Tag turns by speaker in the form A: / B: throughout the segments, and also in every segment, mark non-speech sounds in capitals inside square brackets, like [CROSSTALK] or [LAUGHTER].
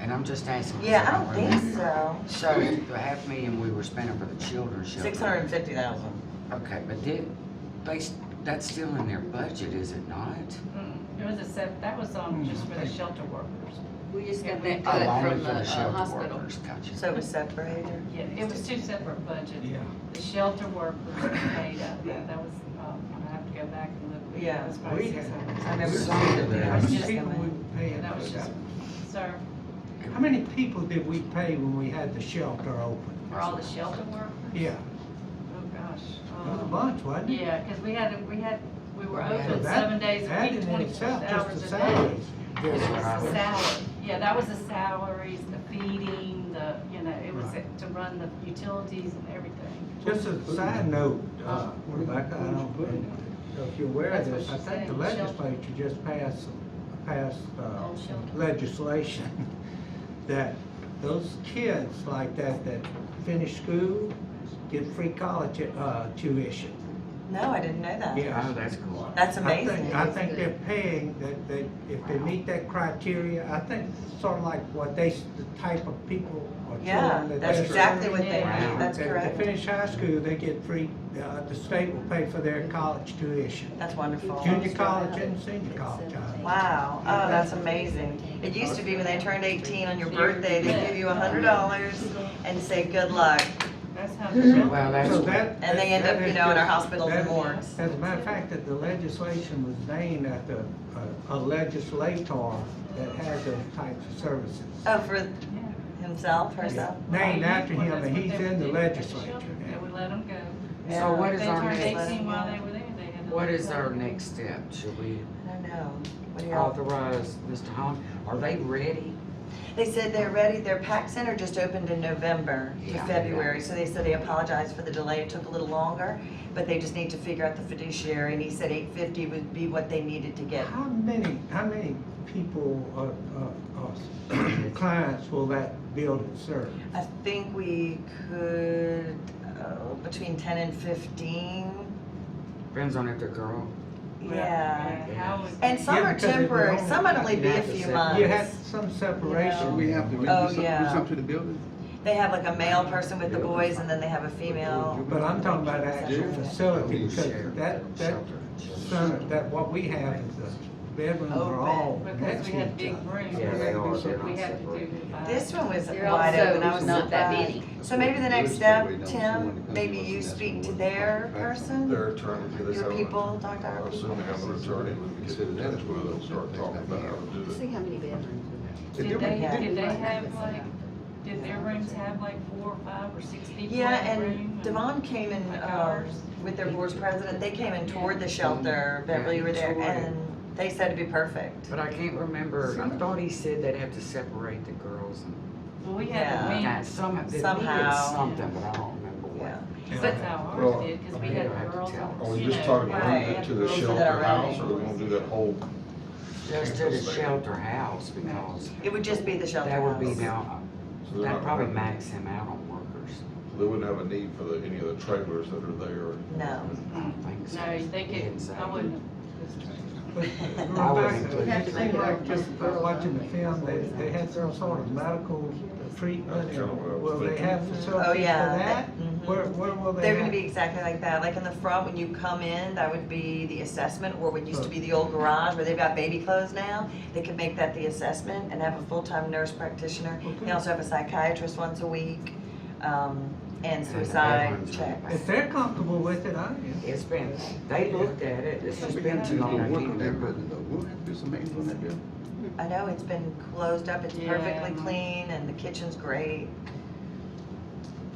A: And I'm just asking.
B: Yeah, I don't think so.
A: So the half million we were spending for the children's shelter.
B: Six hundred and fifty thousand.
A: Okay, but did, they, s- that's still in their budget, is it not?
C: Mm-mm. It Mm. was a sep, that was, um,
D: Mm,
C: just for the shelter workers.
E: We just got
C: Yeah, we-
E: that
A: Oh,
E: cut
A: only
E: from the
A: for
E: uh,
A: shelter
E: hospital.
A: workers, Gotcha.
B: So it was separated.
C: Yeah, it was two separate budgets.
D: Yeah.
C: The shelter workers
E: [COUGHS]
C: paid up, that that was, um, I have to go back and look. but That was
B: Yeah,
C: probably
D: we
C: six
D: had-
C: hundred.
B: I remember
A: Some of
B: seeing it.
A: them.
B: I was just
D: People
B: gonna-
D: we pay
C: That was just, sir,
D: How many people did we pay when we had the shelter open?
C: for all the shelter workers?
D: Yeah,
C: Oh, gosh.
D: it was a
C: um,
D: bunch, wasn't it?
C: Yeah, because we had, we had, we were
A: Yeah,
C: open
D: That-
C: seven days a
D: that in
C: week, twenty-four
D: itself, just
C: hours
D: the
C: a day.
D: salaries.
C: It was
A: That's what I
C: the
A: was-
C: salary, yeah, that was the salaries, the feeding, the, you know, it was
D: Right.
C: to run the utilities and everything.
D: Just as a side note, uh,
C: Uh,
D: Rebecca, I don't, if you're aware of
C: That's what
D: this, I
C: she's
D: think the
C: saying, shelter.
D: legislature just passed, passed, uh,
C: Oh, shelter.
D: legislation [LAUGHS] that those kids like that, that finish school, get free college, uh, tuition.
B: No, I didn't know that.
D: Yeah.
A: Oh, that's cool.
B: That's
D: I think-
B: amazing.
D: I think they're paying, that they, if they meet that criteria, I think sort of like what they, s- the type of people or
B: Yeah,
D: children that
B: that's
D: they-
B: exactly what they,
C: Yeah.
B: that's
D: If they
B: correct.
D: finish high school, they get free, uh, the state will pay for their college tuition.
B: That's wonderful.
D: Junior college and senior college. uh, I-
B: Wow, oh, that's amazing. It used to be when they turned eighteen on your birthday, they give you a hundred dollars and say, good luck.
C: Mm-hmm. That's how the shelter.
A: Well, that's.
D: So that-
B: And they end
D: that-
B: up,
D: that
B: you
D: is
B: know, in our
D: just-
B: hospitals and
D: that-
B: morgues.
D: As a matter of fact, that the legislation was named after a- a legislator that had those types of services.
B: Oh, for
C: Yeah.
B: himself, herself?
D: Named after
C: Well,
D: him,
C: that's
D: and
C: what
D: he's
C: they would
D: in the
C: do at
D: legislature
C: shelter. They
D: now.
C: would let them go.
A: So what is
C: They
A: our
C: turned
A: next,
C: eighteen while they were there, they had to.
A: what
C: let
A: is
C: them
A: our
C: go.
A: next step? Should we
B: I don't know. What do
A: Oh,
B: y'all?
A: authorize Mr. Holland? Are they ready?
B: They said they're ready, their PAC Center just opened in November to
A: Yeah.
B: February, so they said they apologized for the delay, it took a little longer, but they just need to figure out the fiduciary, and he said eight fifty would be what they needed to get.
D: How many, how many people or, or, or [COUGHS] clients will that building serve?
B: I think we could, uh, between ten and fifteen,
A: Depends on if they're girl.
B: yeah.
C: How was?
B: And some
D: Yeah,
B: are
D: because if you
B: temporary,
D: don't-
B: some might only be a
A: have to
B: few
A: say-
D: You had
B: months.
D: some
B: No.
D: separation.
F: We have to maybe
B: Oh,
F: some- do
B: yeah.
F: something to the building?
B: They have like a male person with the boys, and then they have a female.
D: But I'm talking about actual
B: Yeah.
D: facility,
A: Share
D: because that, that,
A: shelter.
D: center- that, what we have is the bedrooms are all
C: Because we
D: next
C: had
D: to each
C: big
D: other.
C: rooms.
A: Yeah, they are, they're
C: We
A: not
C: had to do.
A: separated.
C: uh,
B: This one was
E: They're
B: wide open, I
E: also
B: was
E: not that
B: surprised.
E: many.
B: So maybe the next step, Tim, maybe you speak to their person,
G: Their attorney, get us
B: your
G: out.
B: people, talk to our people.
G: Assuming I'm an attorney, we can get it in, and we'll start talking about how to do
E: See
G: it.
E: how many bedrooms we have.
C: Did they,
B: Yeah.
C: did they have like, did their rooms have like four or five or six people in
B: Yeah,
C: the room?
B: and Devon came in,
C: Like
B: um,
C: ours.
B: with their board's president, they came and toured the shelter, Beverly, you were there,
A: Toured.
B: and they said it'd be perfect.
A: But I can't remember, I thought he said they'd have to separate the girls and,
C: Well, we had the
B: Yeah.
C: men,
A: that some, they needed
B: Somehow.
A: something, but I don't remember what.
B: Yeah.
C: that's how
G: Well,
C: ours did, because we
A: you
C: had
A: don't have to
C: girls.
A: tell.
C: and,
G: Are we
C: you
G: just
C: know,
G: talking
B: about
C: right,
G: about
B: moving
G: it
C: had
G: to the
C: girls that
G: shelter
C: are
G: house, or
C: running.
G: we gonna do that whole?
A: Just to the shelter house because
B: It would just be the shelter
A: that would be
B: house.
A: now,
G: so they're
A: that'd
G: not-
A: probably max him out on workers.
G: They wouldn't have a need for the, any of the trailers that are there.
B: No.
A: I don't think so. uh,
C: No, they
A: He didn't say.
C: could, I wouldn't.
D: But
A: I would
D: Rebecca,
A: include
D: it
A: the
D: seemed
A: girls.
D: like just by watching the film, they, they had some sort of medical treatment,
G: That's kinda what I was
D: will they
G: thinking.
D: have facilities
B: Oh,
D: for
B: yeah,
D: that?
B: that- mhm.
D: Where, where will they?
B: They're gonna
D: have-
B: be exactly like that, like in the front, when you come in, that would be the assessment, or what used to be the old garage, where they've got baby clothes now. They could make that the assessment and have a full-time nurse practitioner. They also have a psychiatrist once a week, um, and suicide
A: everyone's
B: check.
A: right.
D: If they're comfortable with it, I am.
A: It's been, they looked at it, it's just
G: We
A: been
G: have to
A: too
G: do
A: long, I
G: work
A: can't
G: on that
A: remember.
G: building, though. We'll have to do some maintenance on that building.
B: I know, it's been closed up, it's
C: Yeah.
B: perfectly clean, and the kitchen's great.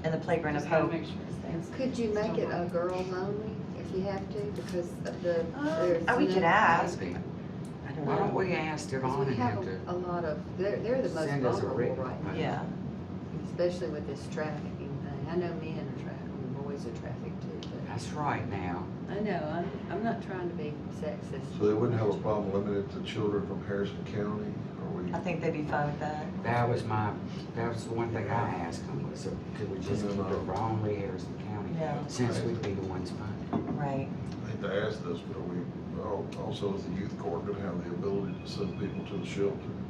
B: And the playground of
C: Just gotta
B: hope.
C: make sure it's it's-
E: Could you make it a girls only if you have to, because of the.
B: Uh,
E: there's
B: we could
E: no-
B: ask. I don't
A: Why don't
B: know.
A: we ask
E: Because
A: Devon
E: we
A: and
E: have
A: have to
E: a a lot of, they're, they're the most
A: send us a
E: vulnerable
A: written?
E: right now,
B: Yeah,
E: especially with this trafficking thing. I know men are trafficked, and boys are trafficked too,
A: That's right now.
E: but I know, I'm, I'm not trying to be sexist.
G: So they wouldn't have a problem limited to children from Harrison County, or we?
B: I think they'd be fine with that.
A: That was my, that was the one thing I asked him was, so could we just keep it
G: Mhm.
A: wrongly Harrison County?
B: Yeah,
A: Since we'd be the ones funding.
B: right.
G: I hate to ask this, but are we, al- also is the youth court gonna have the ability to send people to the shelter?